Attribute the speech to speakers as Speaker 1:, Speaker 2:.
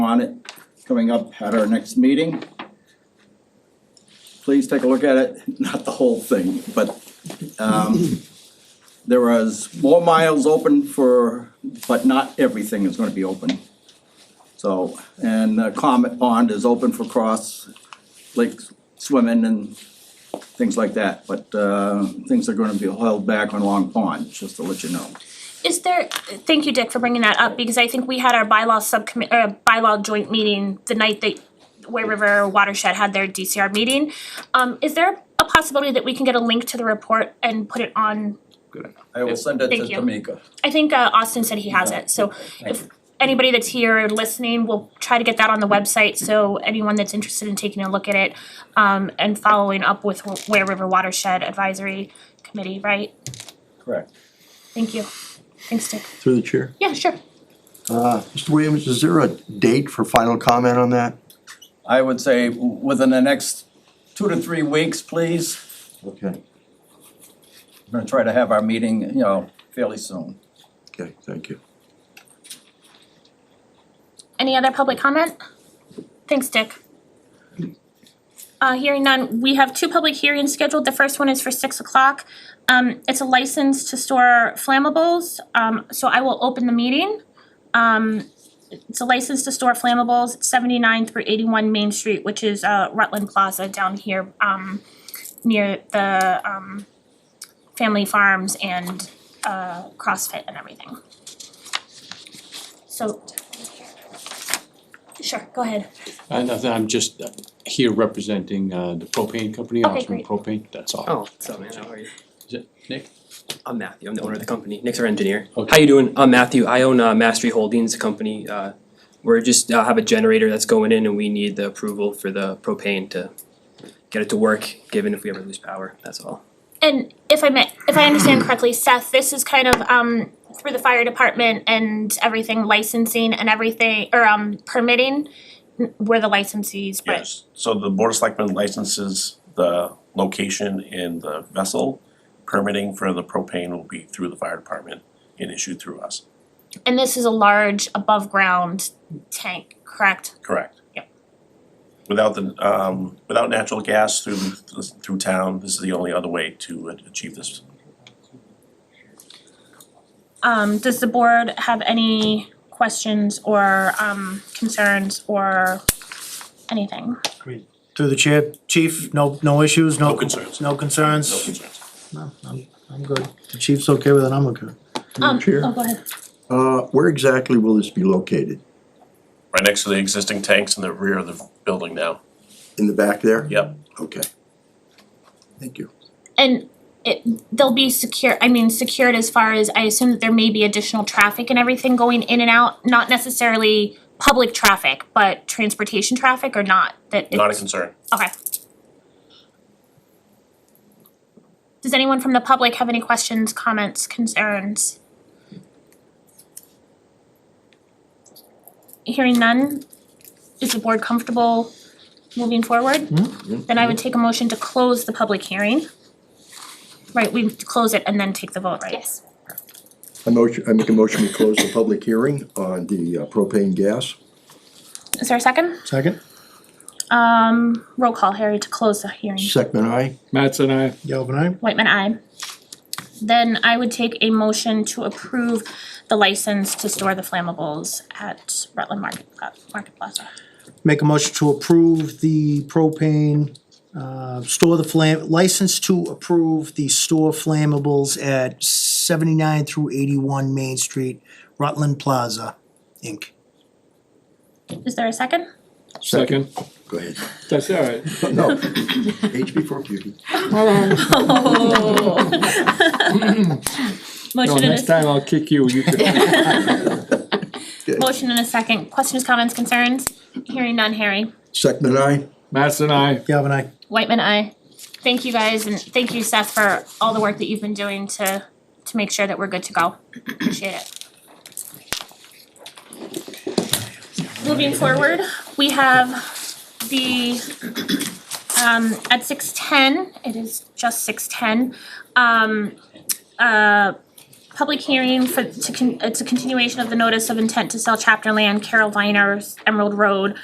Speaker 1: on it coming up at our next meeting. Please take a look at it, not the whole thing, but um there was more miles open for, but not everything is gonna be open. So, and uh, Comet Pond is open for cross lake swimming and things like that, but uh things are gonna be held back on Long Pond, just to let you know.
Speaker 2: Is there, thank you, Dick, for bringing that up, because I think we had our bylaw subcommittee, uh, bylaw joint meeting the night that Way River Watershed had their DCR meeting. Um, is there a possibility that we can get a link to the report and put it on,
Speaker 3: Good idea.
Speaker 1: I will send it to
Speaker 2: Thank you.
Speaker 1: Tamika.
Speaker 2: I think, uh, Austin said he has it, so if anybody that's here listening, we'll try to get that on the website, so anyone that's interested in taking a look at it, um, and following up with Way River Watershed Advisory Committee, right?
Speaker 1: Correct.
Speaker 2: Thank you. Thanks, Dick.
Speaker 4: Through the chair.
Speaker 2: Yeah, sure.
Speaker 4: Uh, Mr. Williams, is there a date for final comment on that?
Speaker 1: I would say w- within the next two to three weeks, please.
Speaker 4: Okay,
Speaker 1: We're gonna try to have our meeting, you know, fairly soon.
Speaker 4: okay, thank you.
Speaker 2: Any other public comment? Thanks, Dick. Uh, hearing none, we have two public hearings scheduled, the first one is for six o'clock. Um, it's a license to store flammables, um, so I will open the meeting. Um, it's a license to store flammables, at seventy-nine through eighty-one Main Street, which is, uh, Rutland Plaza down here, um, near the, um, family farms and, uh, CrossFit and everything. So, sure, go ahead.
Speaker 5: I nothing, I'm just uh, here representing uh the propane company,
Speaker 2: Okay,
Speaker 5: Osram
Speaker 2: great.
Speaker 5: Propane, that's all.
Speaker 3: Oh, what's up, man? How are you?
Speaker 5: Is it Nick?
Speaker 3: I'm Matthew. I'm the owner of the company. Nick's our engineer.
Speaker 5: Okay.
Speaker 3: How you doing? I'm Matthew. I own uh, Mastery Holdings, a company. Uh, we're just uh, have a generator that's going in, and we need the approval for the propane to get it to work. Given if we ever lose power, that's all.
Speaker 2: And if I may, if I understand correctly, Seth, this is kind of um through the fire department and everything licensing and everything or um permitting. n- We're the licensees, but
Speaker 6: Yes, so the board of selectmen licenses the location and the vessel. Permitting for the propane will be through the fire department and issued through us,
Speaker 2: and this is a large above ground tank, correct?
Speaker 6: correct?
Speaker 2: Yep.
Speaker 6: Without the, um, without natural gas through, through town, this is the only other way to achieve this.
Speaker 2: Um does the board have any questions or um concerns or anything?
Speaker 7: Through the chair, chief, no, no issues, no.
Speaker 6: No concerns.
Speaker 7: No
Speaker 6: No
Speaker 7: concerns?
Speaker 6: concerns.
Speaker 7: No, I'm, I'm good. The chief's okay with it, I'm okay.
Speaker 2: Um,
Speaker 4: Chair?
Speaker 2: oh, go ahead.
Speaker 4: Uh, where exactly will this be located?
Speaker 6: Right next to the existing tanks in the rear of the building now,
Speaker 4: In the back there?
Speaker 6: yep.
Speaker 4: Okay. Thank you.
Speaker 2: And it, they'll be secure, I mean, secured as far as, I assume that there may be additional traffic and everything going in and out, not necessarily public traffic, but transportation traffic or not, that it's.
Speaker 6: Not a concern.
Speaker 2: Okay. Does anyone from the public have any questions, comments, concerns? Hearing none, is the board comfortable moving forward? Then I would take a motion to close the public hearing. Right, we close it and then take the vote, right? Yes.
Speaker 4: I motion, I make a motion to close the public hearing on the uh, propane gas.
Speaker 2: Is there a second?
Speaker 7: Second?
Speaker 2: Um, roll call, Harry, to close the hearing.
Speaker 4: Second I,
Speaker 5: Matt's and I.
Speaker 7: Galvin aye?
Speaker 2: Whitman, I. Then I would take a motion to approve the license to store the flammables at Rutland Market Pla- Market Plaza.
Speaker 7: Make a motion to approve the propane, uh, store the flam, license to approve the store flammables at seventy-nine through eighty-one Main Street, Rutland Plaza, Inc.
Speaker 2: Is there a second?
Speaker 5: Second.
Speaker 4: go ahead.
Speaker 5: That's all right.
Speaker 4: No, H before beauty.
Speaker 5: Oh. No,
Speaker 2: Motion and
Speaker 5: next
Speaker 2: a,
Speaker 5: time I'll kick you, you can.
Speaker 2: motion and a second. Questions, comments, concerns? Hearing none, Harry.
Speaker 4: Second I,
Speaker 5: Matt's and I.
Speaker 7: Galvin aye?
Speaker 2: Whitman, I. Thank you guys and thank you Seth for all the work that you've been doing to, to make sure that we're good to go. Appreciate it. Moving forward, we have the, um, at six ten, it is just six ten, um, uh, public hearing uh, for, to con, it's a continuation of the notice of intent to sell chapter land, Carol Viner's Emerald Road,